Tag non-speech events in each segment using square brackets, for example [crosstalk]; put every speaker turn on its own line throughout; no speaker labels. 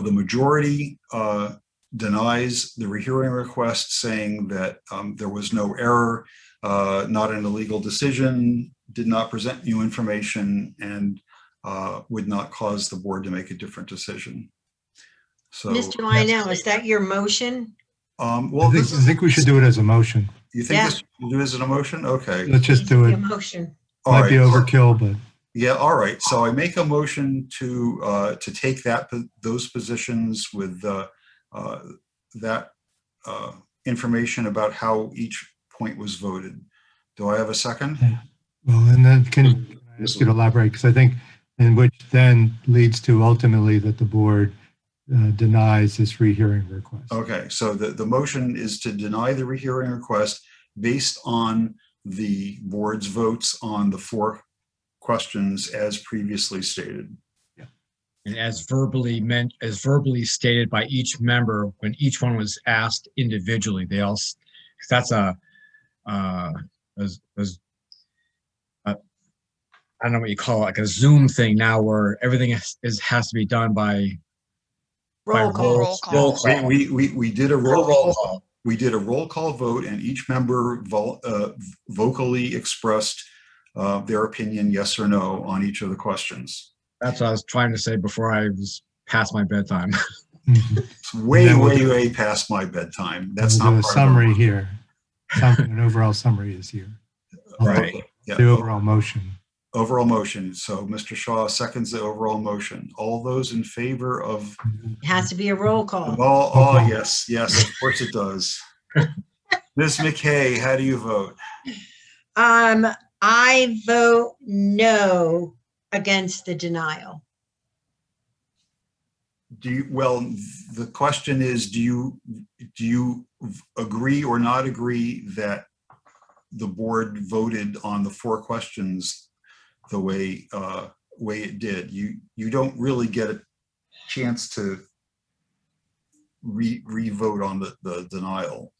the majority uh, denies the rehearing request, saying that um, there was no error, uh, not an illegal decision, did not present new information, and uh, would not cause the board to make a different decision. So,
Mr. Lionel, is that your motion?
um,
I
well,
think,
this
I
is,
think we should do it as a motion.
you think this you do as an emotion? Okay.
Let's just do
Your
it.
motion.
all
Might be
right.
overkill, but
Yeah, all right. So I make a motion to, uh, to take that, po- those positions with, uh, uh, that, uh, information about how each point was voted. Do I have a second?
well, and then can
Hmm.
can I ask you to elaborate? Because I think, and which then leads to ultimately that the board uh, denies this rehearing request.
Okay, so the, the motion is to deny the rehearing request based on the board's votes on the four questions as previously stated.
And as verbally meant, as verbally stated by each member, when each one was asked individually, they all, s- 'cause that's a, uh, as, as, uh, I don't know what you call it, like a Zoom thing now where everything is, is, has to be done by. by
Roll call.
roll- Roll
We,
call.
we, we, we did a roll
Roll
call
call.
we did a roll call vote and each member vol- uh, vocally expressed uh, their opinion, yes or no, on each of the questions.
That's what I was trying to say before I was past my bedtime. [laughs]
Mhm.
It's way,
Then we'll
way,
do-
way past my bedtime. That's
We'll do
not
A
part of
summary
our-
here. Summary- An overall summary is here. I'll do
Right. Yeah.
The overall motion.
Overall motion. So Mr. Shaw seconds the overall motion. All those in favor of,
It Has to be a roll
all,
call.
oh, yes, yes, of course it does.
[laughs]
Ms. McKay, how do you vote?
Um, I vote no against the denial.
Do you, well, the question is, do you, do you v- agree or not agree that the board voted on the four questions the way, uh, way it did? You, you don't really get a chance to re, re-vote on the, the denial.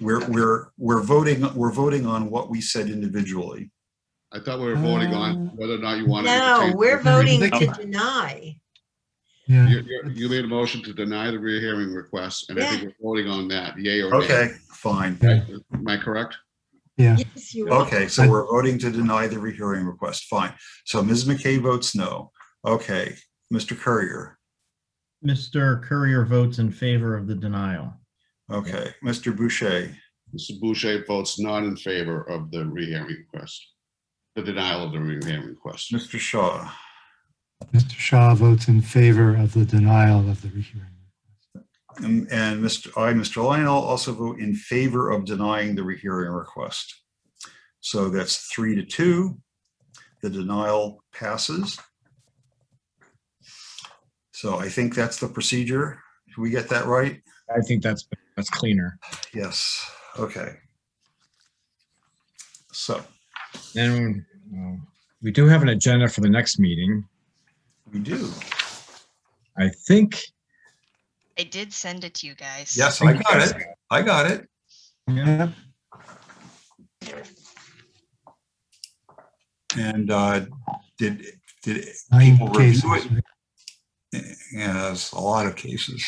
We're, we're, we're voting, we're voting on what we said individually.
I thought we were voting on whether or not you wanted. to
Um, No,
change-
we're voting to
Ridiculous.
deny.
Yeah.
You, you- you made a motion to deny the rehearing request, and I think we're voting on that, yay or nay.
Okay, fine.
Yeah.
Am I correct?
Yeah.
Yes, you are.
Okay, so we're voting to deny the rehearing request. Fine. So Ms. McKay votes no. Okay, Mr. Courier.
Mr. Courier votes in favor of the denial.
Okay, Mr. Boucher.
Mr. Boucher votes not in favor of the rehearing request, the denial of the rehearing request.
Mr. Shaw.
Mr. Shaw votes in favor of the denial of the rehearing.
And and Mr. I, Mr. Lionel, also vote in favor of denying the rehearing request. So that's three to two. The denial passes. So I think that's the procedure. Did we get that right?
I think that's, that's cleaner.
Yes, okay. So.
Then um, we do have an agenda for the next meeting.
We do.
I think.
I did send it to you guys.
Yes, I got it. I got it.
Yep.
And uh did, did,
Nine
People review
cases.
it.
right?
yeah, that's a lot of cases.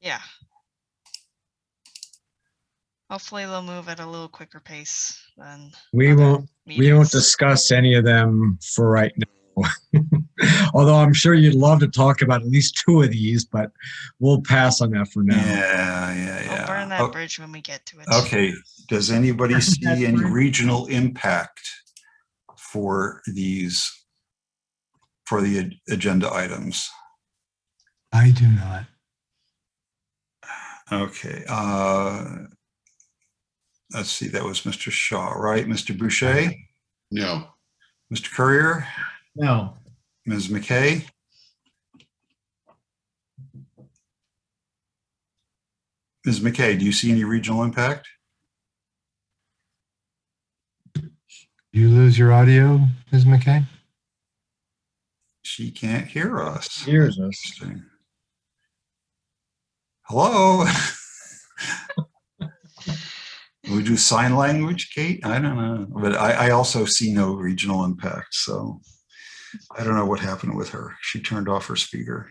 Yeah. Hopefully they'll move at a little quicker pace than.
We
other
won't, we won't
meetings.
discuss any of them for right now. [laughs] Although I'm sure you'd love to talk about at least two of these, but we'll pass on that for now.
Yeah, yeah,
We'll burn
yeah.
oh,
that
O-
bridge when we get to it.
Okay, does
[laughs]
anybody see any
fine.
regional impact for these, for the ag- agenda items?
I do not.
Okay, uh let's see, that was Mr. Shaw, right? Mr. Boucher,
No,
Mr. Courier,
No,
Ms. McKay? Ms. McKay, do you see any regional impact?
You lose your audio, Ms. McKay?
She can't hear us.
Here's us.
Interesting. Hello? [laughs] Would you sign language, Kate? I don't know, but I, I also see no regional impact, so I don't know what happened with her. She turned off her speaker.